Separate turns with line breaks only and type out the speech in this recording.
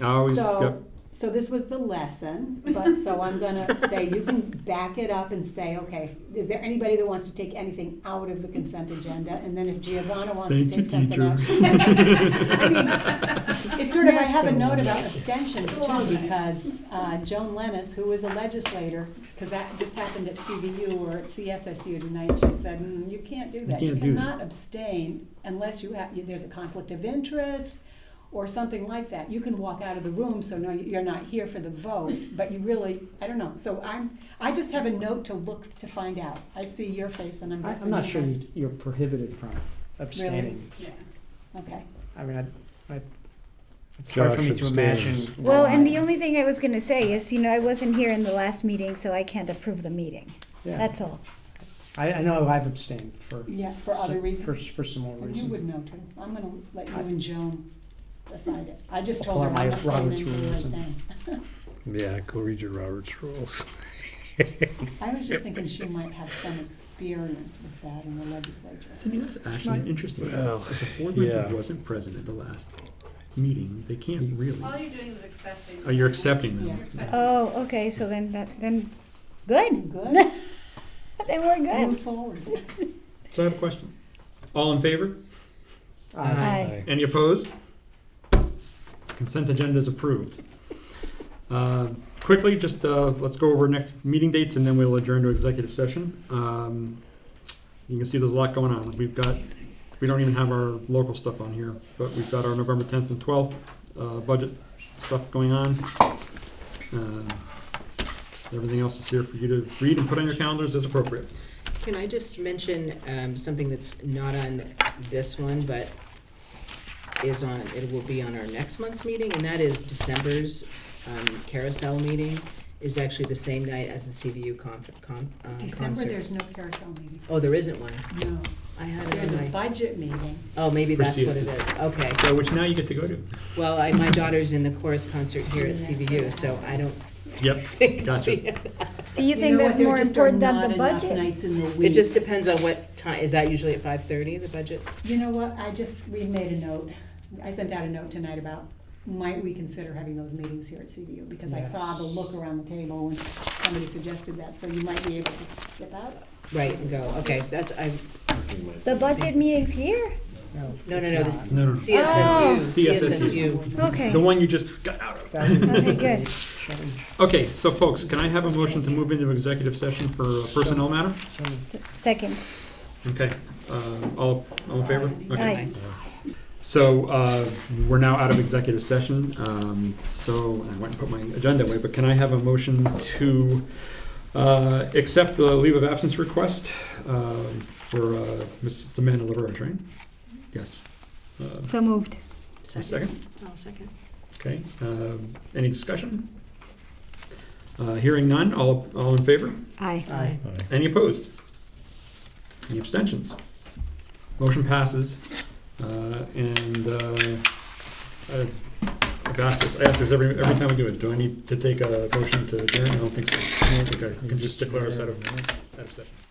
I always, yep.
So, so this was the lesson, but so I'm gonna say you can back it up and say, okay, is there anybody that wants to take anything out of the consent agenda? And then if Giovanna wants to
Thank you,
take something
teacher.
out. I mean, It's sort of, I have a note about abstentions too, because uh, Joan Lennis, who is a legislator, because that just happened at CVU or at CSSU tonight, she said, "Mm, you can't do that. You
can't do that."
cannot abstain unless you have, there's a conflict of interest or something like that. You can walk out of the room, so no, you're not here for the vote, but you really, I don't know. So I'm, I just have a note to look to find out. I see your face and I'm
I-
guessing.
I'm not
you
sure
must-
you- you're prohibited from abstaining.
Yeah, okay.
I mean, I, I, it's hard for
Josh
me to
abstains.
imagine.
Well,
why.
and the only thing I was gonna say is, you know, I wasn't here in the last meeting, so I can't approve the meeting.
Yeah,
That's all.
I, I know I've abstained for.
Yeah, for
si-
other
For,
reasons.
s- for similar
And you would
reasons.
know too. I'm gonna let you
I-
and Joan decide it. I just told her
Apply
I'm
my
not saying
Robert's
anything
rules
right
and-
then.
Yeah, go read your Robert's rules.
I was just thinking she might have some experience with that in the legislature.
I mean, that's actually an interesting. thing.
Well,
If a board member
yeah.
wasn't present at the last meeting, they can't really.
All you're doing is accepting.
Oh, you're accepting
Yeah.
them.
You're
Oh, okay, so then that, then,
Good,
good, then we're
move
good.
forward.
So I have a question. All in favor?
I-
Aye.
Any opposed? Consent agenda is approved. Uh, Quickly, just, uh, let's go over next meeting dates and then we'll adjourn to executive session. Um, You can see there's a lot going on. We've got, we don't even have our local stuff on here, but we've got our November tenth and twelfth, uh, budget stuff going on. Um, Everything else is here for you to read and put on your calendars as appropriate.
Can I just mention um, something that's not on this one, but is on, it will be on our next month's meeting, and that is December's um, carousel meeting is actually the same night as the CVU conf- con- uh,
December,
concert.
there's no carousel meeting.
Oh, there isn't one.
No,
I had it
there's a
in my,
budget meeting.
oh, maybe that's what it
Proceed.
is. Okay.
So which now you get to go to.
Well, I, my daughter's in the chorus concert here at CVU, so I don't
Yep,
think.
gotcha.
Do you
know
think that's
what? There
more
just are
important than the
not enough
budget?
Nights in the week.
It just depends on what time, is that usually at five thirty, the budget?
You know what, I just, we made a note, I sent out a note tonight about, might we consider having those meetings here at CVU? Because I saw the
Yes.
look around the table when somebody suggested that, so you might be able to skip out.
Right, and go, okay, that's, I,
The budget meeting's here?
no, no,
it's
no, the
not.
CSSU,
No, no, no.
Oh.
CSSU.
Okay.
The one you just got out of.
That would be
Okay,
a
good.
big change.
Okay, so folks, can I have a motion to move into executive session for a personnel matter?
So,
S- Second,
Okay, uh, all, all in favor? Okay.
aye.
So, uh, we're now out of executive session, um, so I went and put my agenda away, but can I have a motion to, uh, accept the leave of absence request, uh, for, uh, Ms. it's Amanda LaBerge, right? Yes. Uh,
So moved.
Second?
I'll second.
Okay, um, any discussion? Uh, hearing none, all, all in favor?
Aye.
Aye.
Any opposed? Any abstentions? Motion passes, uh, and, uh, I- I've asked this, I ask this every, every time we do it, do I need to take a motion to adjourn? I don't think so. I think I can just declare us out of, out of session.